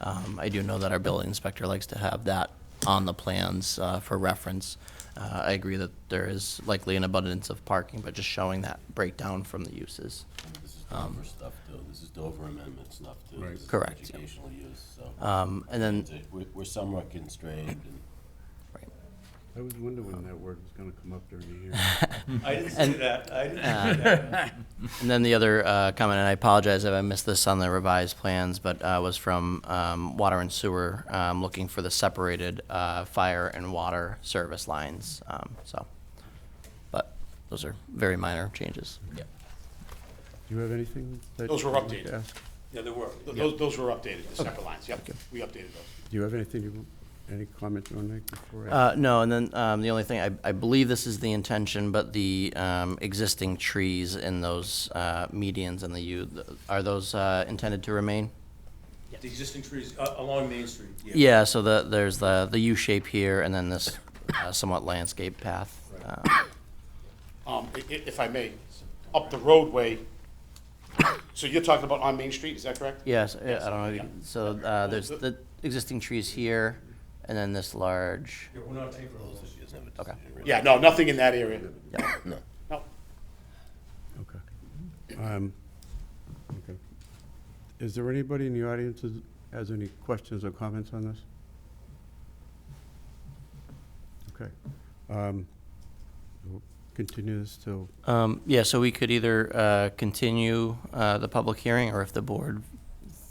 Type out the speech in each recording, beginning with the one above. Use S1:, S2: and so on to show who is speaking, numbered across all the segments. S1: Um, I do know that our building inspector likes to have that on the plans uh, for reference. Uh, I agree that there is likely an abundance of parking, but just showing that breakdown from the uses.
S2: This is Dover stuff too, this is Dover amendment stuff too. This is
S1: Correct.
S2: Educational use, so
S1: Um, And then,
S2: It's- we're, we're somewhat constrained and.
S1: right.
S3: I was wondering when that word was gonna come up during the year.
S4: I didn't say
S1: And- uh,
S4: that, I didn't say that.
S1: And then the other uh, comment, and I apologize if I missed this on the revised plans, but uh, was from um, Water and Sewer, um, looking for the separated uh, fire and water service lines, um, so. But those are very minor changes. Yeah.
S3: Do you have anything that?
S5: Those were
S3: you wanted
S5: updated.
S3: to ask?
S4: Yeah, there were.
S5: Th- Those, those were updated, the separate lines, yep, we updated those.
S3: Do you have anything, you- any comment you wanna make before? I-
S1: Uh, no, and then um, the only thing, I, I believe this is the intention, but the um, existing trees in those uh, medians and the U, are those uh, intended to remain?
S4: The existing trees uh, along Main Street, yeah.
S1: Yeah, so the, there's the, the U shape here, and then this uh, somewhat landscape path. uh,
S5: Um, i- i- if I may, up the roadway, so you're talking about on Main Street, is that correct?
S1: Yes, I I don't know, if you
S5: yeah.
S1: can- so uh, there's
S5: the-
S1: the existing trees here, and then this large,
S4: Yeah, we're not taking those.
S1: okay.
S5: Yeah, no, nothing in that area.
S1: yeah.
S5: No,
S3: Okay. Um, okay. Is there anybody in the audience that has any questions or comments on this? Okay. Um, we'll Continue this till,
S1: Um, Yeah, so we could either uh, continue uh, the public hearing, or if the board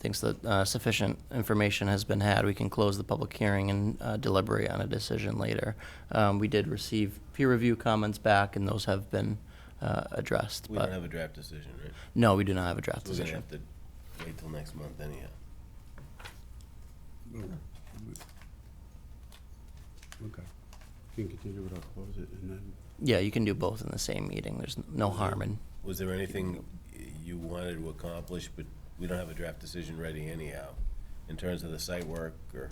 S1: thinks that uh, sufficient information has been had, we can close the public hearing and uh, deliberate on a decision later. Um, We did receive peer review comments back, and those have been uh, addressed,
S2: We don't
S1: but,
S2: have a draft decision, right?
S1: no, we do not have a draft
S2: So We're gonna
S1: decision.
S2: have to wait till next month anyhow.
S3: okay. Can continue it, I'll close it, and then,
S1: Yeah, you can do both in the same meeting, there's no harm in
S2: Was there anything you wanted to accomplish, but we don't have a draft decision ready anyhow, in terms of the site work or?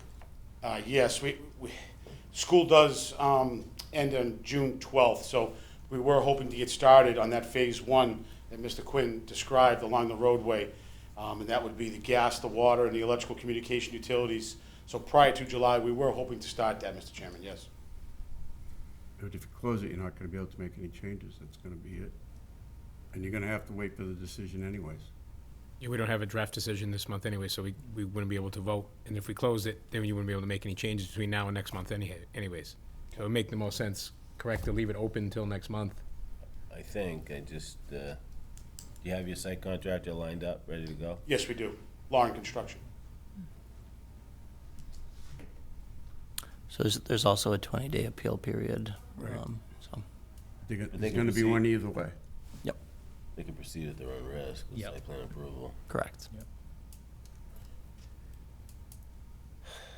S5: Uh, yes, we, we, school does, um, end on June twelfth, so we were hoping to get started on that phase one that Mr. Quinn described along the roadway. Um, and that would be the gas, the water, and the electrical communication utilities. So prior to July, we were hoping to start that, Mr. Chairman, yes.
S3: but if you close it, you're not gonna be able to make any changes, that's gonna be it. And you're gonna have to wait for the decision anyways.
S6: Yeah, we don't have a draft decision this month anyway, so we, we wouldn't be able to vote. And if we closed it, then you wouldn't be able to make any changes between now and next month anyhow, anyways. So it would make the most sense, correct, to leave it open until next month.
S2: I think, I just, uh, do you have your site contractor lined up, ready to go?
S5: Yes, we do. Law and construction.
S1: So there's, there's also a 20-day appeal period. um, So,
S3: They're gonna-
S2: But they
S3: There's
S2: can
S3: gonna be
S2: proceed.
S3: one either way.
S1: yep,
S2: They can proceed at their own risk with
S4: Yep.
S2: site plan approval.
S1: correct.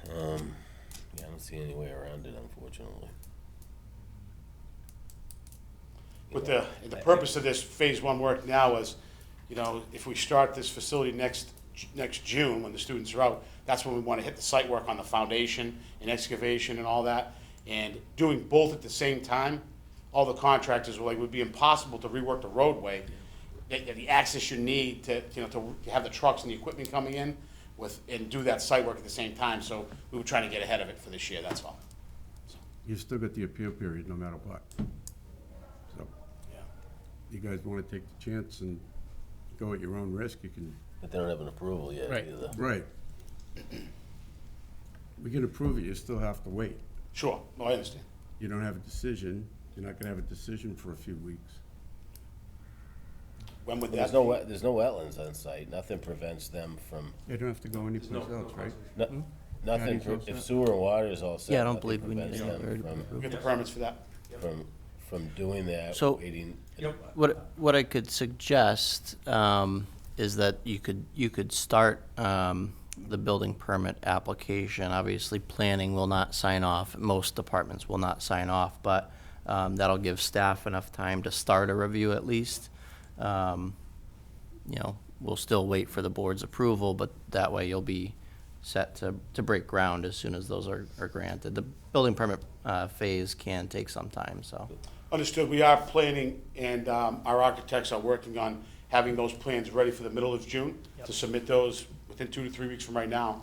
S2: Um, yeah, I don't see any way around it, unfortunately.
S5: But the, and the purpose of this phase one work now is, you know, if we start this facility next, next June, when the students are out, that's when we want to hit the site work on the foundation and excavation and all that. And doing both at the same time, all the contractors were like, would be impossible to rework the roadway. The, the access you need to, you know, to have the trucks and the equipment coming in with, and do that site work at the same time. So we were trying to get ahead of it for this year, that's all.
S3: You've still got the appeal period no matter what. So, you guys wanna take the chance and go at your own risk, you can,
S2: But they don't have an approval yet
S6: Right.
S2: either.
S3: right. We can approve it, you still have to wait.
S5: Sure, no, I understand.
S3: You don't have a decision, you're not gonna have a decision for a few weeks.
S5: When would that
S2: There's
S5: be?
S2: no, wet- there's no wetlands on site, nothing prevents them from,
S3: They don't have to go
S4: no-
S3: anyplace
S4: no
S3: else, right?
S1: Hmm?
S2: no- nothing,
S3: Patty's all
S2: pre- if
S3: set.
S2: sewer and water is all set.
S1: Yeah, I don't
S2: nothing
S1: believe we need
S2: prevents
S1: a
S2: them
S1: third
S2: From,
S5: Get the
S1: approval.
S5: permits for that.
S2: from, from doing that,
S1: So-
S2: waiting.
S4: Yep.
S1: What, what I could suggest um, is that you could, you could start um, the building permit application. Obviously, planning will not sign off, most departments will not sign off, but um, that'll give staff enough time to start a review at least. Um, You know, we'll still wait for the board's approval, but that way you'll be set to, to break ground as soon as those are, are granted. The building permit uh, phase can take some time, so.
S5: Understood, we are planning, and um, our architects are working on having those plans ready for the middle of June, to submit those within two to three weeks from right now,